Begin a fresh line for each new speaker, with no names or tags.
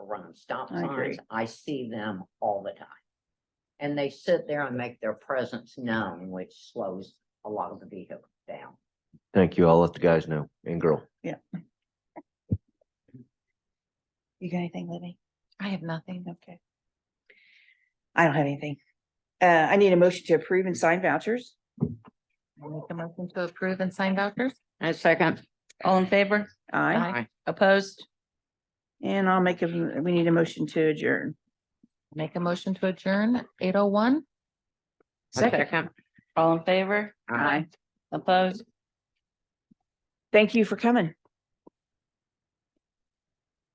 run stop
I agree.
signs. I see them all the time. And they sit there and make their presence known, which slows a lot of the vehicles down.
Thank you. I'll let the guys know and girl.
You got anything, Libby?
I have nothing.
Okay. I don't have anything. Uh, I need a motion to approve and sign vouchers.
I Make the motion to approve and sign vouchers.
And second,
All in favor? Aye.
Aye.
Opposed? And I'll make a, we need a motion to adjourn.
Make a motion to adjourn, eight oh one.
All in favor?
Aye.
Opposed? Thank you for coming.